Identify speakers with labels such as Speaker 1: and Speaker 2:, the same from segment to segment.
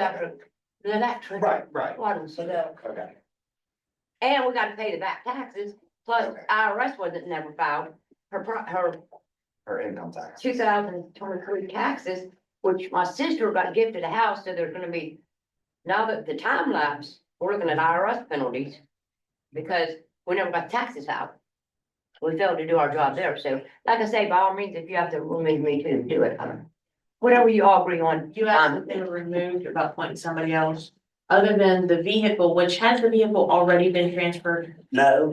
Speaker 1: electric, the electric.
Speaker 2: Right, right,
Speaker 1: Water, so the-
Speaker 2: okay,
Speaker 1: and we gotta pay the back taxes, plus
Speaker 2: Okay.
Speaker 1: IRS wasn't never filed. Her, pro- her
Speaker 2: her income tax.
Speaker 1: two thousand twenty-three taxes, which my sister got gifted a house, so there's gonna be. Now that the time lapse, we're looking at IRS penalties, because we never got taxes out. We failed to do our job there, so like I say, by all means, if you have to remove me to do it, I don't- whatever you all agree on.
Speaker 3: You
Speaker 1: I'm-
Speaker 3: asked if they were removed or about appointing somebody else, other than the vehicle, which has the vehicle already been transferred?
Speaker 2: No.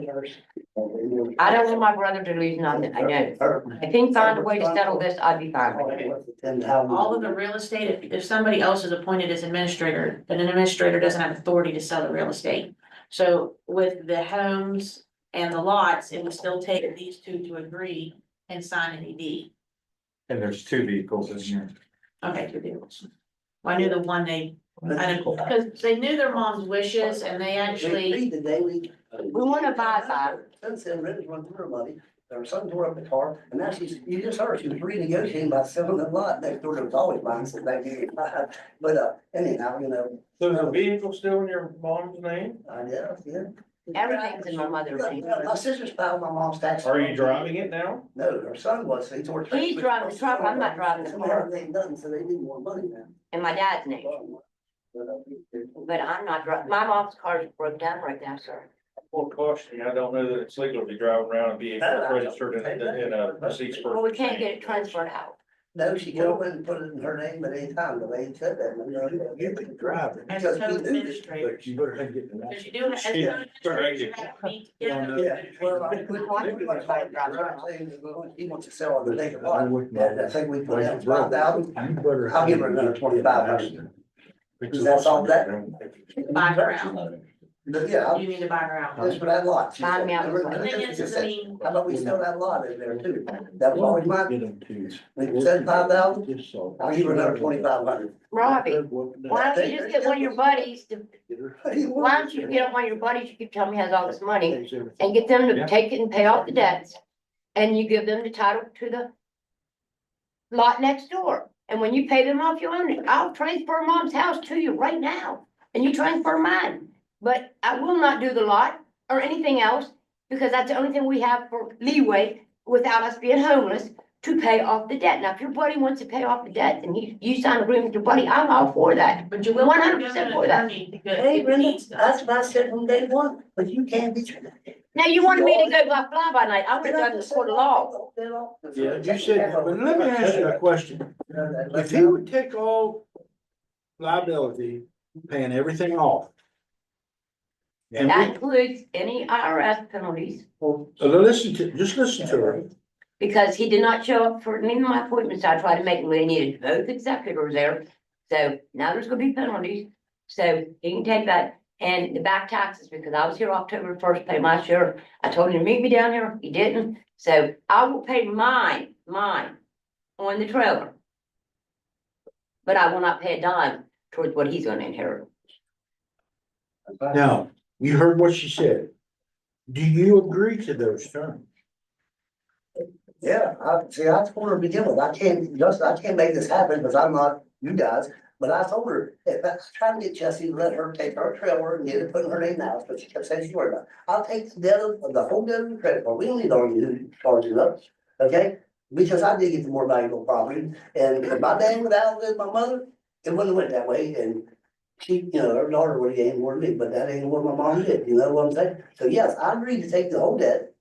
Speaker 1: I don't want my brother to lose nothing, I know. If he can find a way to settle this, I'd be fine with it.
Speaker 3: All of the real estate, if, if somebody else is appointed as administrator, then an administrator doesn't have authority to sell the real estate. So with the homes and the lots, it would still take these two to agree and sign an E ED.
Speaker 4: And there's two vehicles in here.
Speaker 3: Okay, two deals. Well, I knew the one they, because they knew their mom's wishes and they actually,
Speaker 5: The day we.
Speaker 1: We wanna buy five.
Speaker 5: Since then, Red has run through her money, her son tore up the car, and now she's, you just heard, she was renegotiating by selling the lot next door, there was always mine, so back in, but, uh, anyhow, you know,
Speaker 4: So is the vehicle still in your mom's name?
Speaker 5: I guess, yeah.
Speaker 1: Everything's in my mother's name.
Speaker 5: My sister's filed my mom's taxes.
Speaker 4: Are you driving it now?
Speaker 5: No, her son was, he tore.
Speaker 1: He's driving the truck, I'm not driving the
Speaker 5: Somehow
Speaker 1: car.
Speaker 5: they ain't done, so they need more money now.
Speaker 1: in my dad's name, but I'm not, dri- my mom's car is broke down right now, sir.
Speaker 4: Well, caution, I don't know that it's legal to be driving around a vehicle registered in, in a Sixburg.
Speaker 1: Well, we can't get it transferred out.
Speaker 5: No, she could have went and put it in her name at any time, but they ain't said that. and they're-
Speaker 2: You can drive it.
Speaker 3: as
Speaker 5: Because we
Speaker 3: co
Speaker 5: do this,
Speaker 3: administrator.
Speaker 2: But you better not get in that.
Speaker 3: Because you do. as
Speaker 4: Yeah.
Speaker 3: co-administrator, you have to meet together.
Speaker 5: Yeah, well, I think we, we want to buy it, right, saying that we want- he wants to sell on the vacant lot, and I think we put down five thousand.
Speaker 2: You better-
Speaker 5: I'll give her another 25,000. Because that's all that-
Speaker 3: Buy her out.
Speaker 5: But yeah, I'll-
Speaker 3: You need to buy her out.
Speaker 5: just for that lot. she
Speaker 1: Find me
Speaker 5: said.
Speaker 1: out what's
Speaker 3: The thing is, is I mean,
Speaker 5: How about we sell that lot in there too? That was always mine,
Speaker 2: Get them to.
Speaker 5: we said five thousand, I'll give her another twenty-five hundred.
Speaker 1: Robbie, why don't you just get one of your buddies to, why don't you get one of your buddies, you keep telling me has all this money, and get them to
Speaker 4: Yeah.
Speaker 1: take it and pay off the debts, and you give them the title to the lot next door, and when you pay them off, you own it. I'll transfer mom's house to you right now, and you transfer mine. But I will not do the lot or anything else, because that's the only thing we have for leeway without us being homeless to pay off the debt. Now, if your buddy wants to pay off the debt, and you, you sign an agreement with your buddy, I'm all for that.
Speaker 3: but you will.
Speaker 1: 100% for that.
Speaker 3: Hey,
Speaker 5: what I said from day one, but you can't be.
Speaker 1: Now, you wanted me to go by fly by night, I would have done this for the law.
Speaker 2: Yeah, you said, but let me ask you a question. If he would take all liability, paying everything off. And
Speaker 1: That
Speaker 2: we,
Speaker 1: includes any IRS penalties,
Speaker 2: so listen to, just listen to her.
Speaker 1: because he did not show up for any of my appointments, I tried to make, we needed both executors there. So now there's gonna be penalties, so he can take that, and the back taxes, because I was here October first, pay my share. I told him to meet me down here, he didn't, so I will pay mine, mine, on the trailer. But I will not pay a dime towards what he's gonna inherit.
Speaker 2: Now, you heard what she said. Do you agree to those terms?
Speaker 5: Yeah, I, see, I told her to begin with, I can't, just, I can't make this happen, because I'm not you guys, but I told her, if I try to get Jesse, to let her take her trailer and get it put in her name now, but she kept saying she worried about. it. I'll take the debt of, the whole debt of the credit card, we don't need on you, charge it up, okay? Because I did get the more valuable property, and if my dad would outlived my mother, it wouldn't have went that way, and she, you know, her daughter would have gained more than me, but that ain't what my mom did, you know what I'm saying? So yes, I agreed to take the whole debt.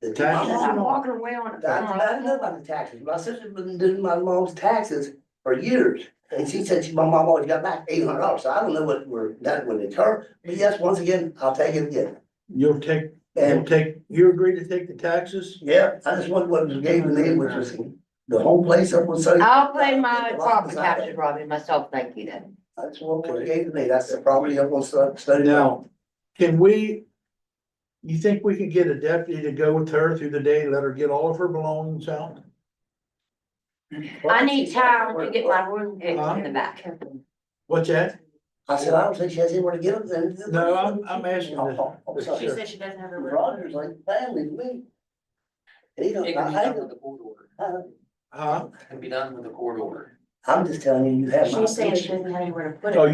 Speaker 5: The two-
Speaker 2: Taxes
Speaker 1: I'm walking away on it.
Speaker 5: I I didn't know about the taxes. My sister's been doing my mom's taxes for years. And she said she, my mom always got back eight hundred dollars. So I don't know what we're, that would incur. But yes, once again, I'll take it again.
Speaker 2: You'll take, you'll
Speaker 5: And
Speaker 2: take, you agree to take the taxes?
Speaker 5: yeah, I just want what was gave to me, which was the whole place up on Sunny.
Speaker 1: I'll pay my property taxes, Robbie, myself, thank you then.
Speaker 5: That's what was gave to me. That's the property up on Sun- Sunny.
Speaker 2: Now, can we? You think we can get a deputy to go with her through the day, let her get all of her belongings out?
Speaker 1: I need time to get my room fixed in the back.
Speaker 2: What's that?
Speaker 5: I said, I don't think she has anywhere to get them. then."
Speaker 2: No, I'm- I'm asking this-
Speaker 5: Oh, oh, oh, sorry.
Speaker 3: She said she doesn't have her.
Speaker 5: Roger's like family to me. And he don't, I, I,
Speaker 6: the court order.
Speaker 5: I-
Speaker 2: Huh?
Speaker 6: Can be done with the court order.
Speaker 5: I'm just telling you, you have my.
Speaker 3: She's saying
Speaker 5: picture.
Speaker 3: she doesn't have anywhere to put it.
Speaker 2: Oh,